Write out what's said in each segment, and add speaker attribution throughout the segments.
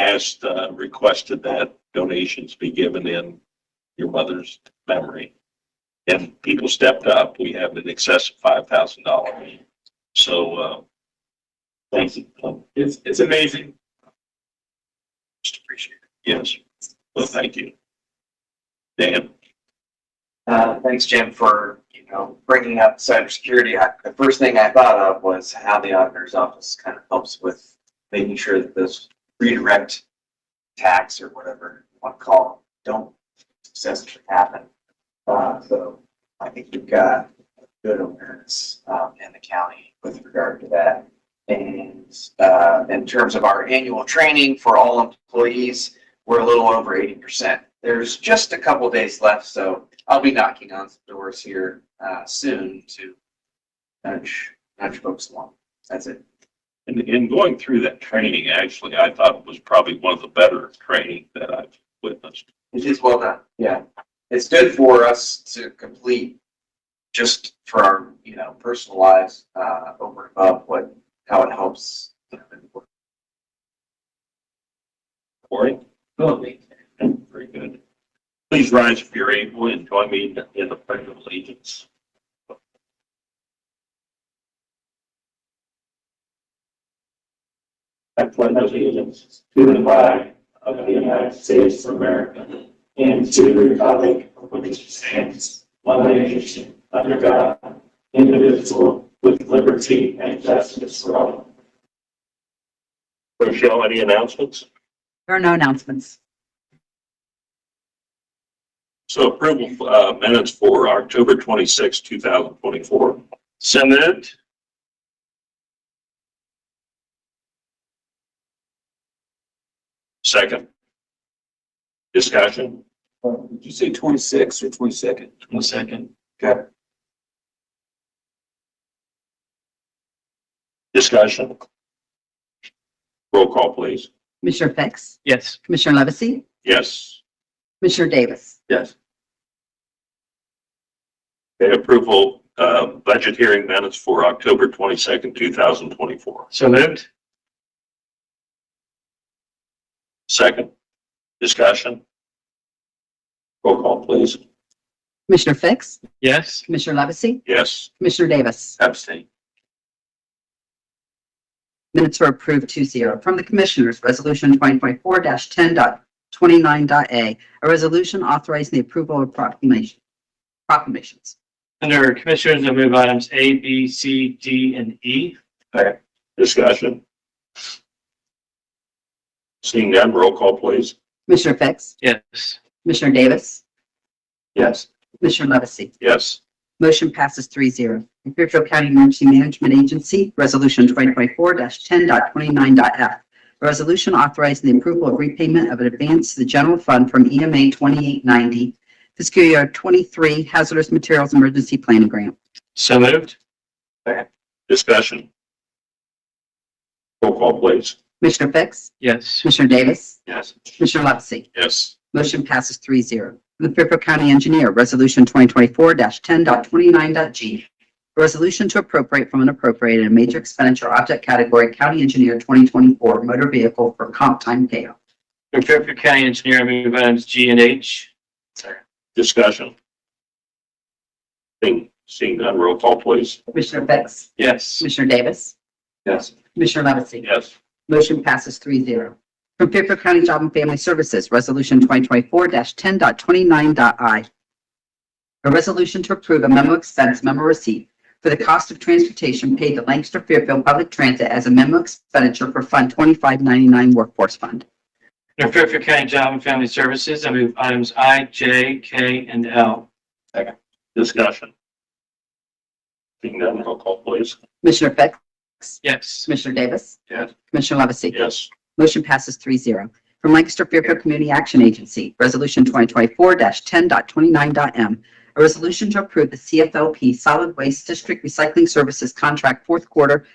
Speaker 1: asked, uh, requested that donations be given in your mother's memory. And people stepped up. We have an excess of five thousand dollars. So, uh, thank you. Um,
Speaker 2: It's, it's amazing. Just appreciate it.
Speaker 1: Yes. Well, thank you. Dan,
Speaker 3: Uh, thanks, Jim, for, you know, bringing up cybersecurity. I, the first thing I thought of was how the auditor's office kind of helps with making sure that those redirect attacks or whatever you want to call them don't successfully happen. Uh, so I think you've got good awareness, um, in the county with regard to that. And, uh, in terms of our annual training for all employees, we're a little over eighty percent. There's just a couple days left, so I'll be knocking on some doors here uh, soon to nudge nudge folks along. That's it.
Speaker 1: in, in going through that training, actually, I thought it was probably one of the better training that I've witnessed.
Speaker 3: It is well done. Yeah, it's good for us to complete just for our you know personal lives uh, over and above what how it helps. you know, in the work.
Speaker 1: Corey? Very good. Please rise if you're able and join me in- in the pledge of allegiance.
Speaker 4: I pledge allegiance to the flag of the United States of America and to the republic for which it stands, one nation, under God, indivisible, with liberty and justice for all.
Speaker 1: Rochelle, any announcements?
Speaker 5: There are no announcements.
Speaker 1: So approval uh, minutes for October 26, 2024. Send it. Second. Discussion.
Speaker 2: Did you say twenty-six or twenty-second? Twenty-second.
Speaker 1: Discussion. Roll call, please.
Speaker 5: Commissioner Fix?
Speaker 2: Yes.
Speaker 5: Commissioner Levesey?
Speaker 1: Yes.
Speaker 5: Commissioner Davis?
Speaker 2: Yes.
Speaker 1: Okay, approval, uh, budget hearing minutes for October 22nd, 2024.
Speaker 2: So moved?
Speaker 1: Second. Discussion. Roll call, please.
Speaker 5: Commissioner Fix?
Speaker 2: Yes.
Speaker 5: Commissioner Levesey?
Speaker 1: Yes.
Speaker 5: Commissioner Davis?
Speaker 1: Abstain.
Speaker 5: Minutes were approved 2-0. From the Commissioners, Resolution 2024-10.29.a, a resolution authorizing the approval of proclamation- proclamations.
Speaker 6: Under Commissioners, I move items A, B, C, D, and E.
Speaker 1: Discussion. Seeing none, roll call, please.
Speaker 5: Commissioner Fix?
Speaker 6: Yes.
Speaker 5: Commissioner Davis?
Speaker 1: Yes.
Speaker 5: Commissioner Levesey?
Speaker 1: Yes.
Speaker 5: Motion passes 3-0. The Fairfield County Emergency Management Agency, Resolution 2024-10.29.f. A resolution authorizing the approval of repayment of an advance to the general fund from E EMA 2890, fiscal year 23 hazardous materials emergency planning grant.
Speaker 6: So moved?
Speaker 1: Discussion. Roll call, please.
Speaker 5: Commissioner Fix?
Speaker 6: Yes.
Speaker 5: Commissioner Davis?
Speaker 1: Yes.
Speaker 5: Commissioner Levesey?
Speaker 1: Yes.
Speaker 5: Motion passes three zero. From the Fairfield County Engineer, Resolution 2024-10.29.g. A resolution to appropriate from unappropriated in major expenditure object category County Engineer 2024 motor vehicle for comp time payoff.
Speaker 6: Under Fairfield County Engineer, I move items G and H.
Speaker 1: Discussion. Seeing, seeing none, roll call, please.
Speaker 5: Commissioner Fix?
Speaker 6: Yes.
Speaker 5: Commissioner Davis?
Speaker 1: Yes.
Speaker 5: Commissioner Levesey?
Speaker 1: Yes.
Speaker 5: Motion passes three zero. From Fairfield County Job and Family Services, Resolution 2024-10.29.i. A resolution to approve a memo expense memo receipt for the cost of transportation paid to Lancaster Fairfield Public Transit as a memo expenditure for Fund 2599 Workforce Fund.
Speaker 6: Under Fairfield County Job and Family Services, I move items I, J, K, and L.
Speaker 1: Discussion. Seeing none, roll call, please.
Speaker 5: Commissioner Fix?
Speaker 6: Yes.
Speaker 5: Commissioner Davis?
Speaker 1: Yes.
Speaker 5: Commissioner Levesey?
Speaker 1: Yes.
Speaker 5: Motion passes three zero. From Lancaster Fairfield Community Action Agency, Resolution 2024-10.29.m. A resolution to approve the CFLP Solid Waste District Recycling Services Contract Fourth Quarter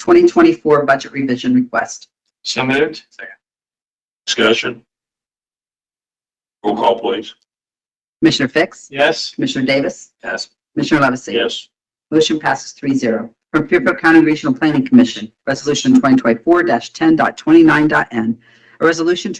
Speaker 5: 2024 Budget Revision Request.
Speaker 6: So moved?
Speaker 1: Discussion. Roll call, please.
Speaker 5: Commissioner Fix?
Speaker 6: Yes.
Speaker 5: Commissioner Davis?
Speaker 1: Yes.
Speaker 5: Commissioner Levesey?
Speaker 1: Yes.
Speaker 5: Motion passes three zero. From Fairfield County Regional Planning Commission, Resolution 2024-10.29.n. A resolution to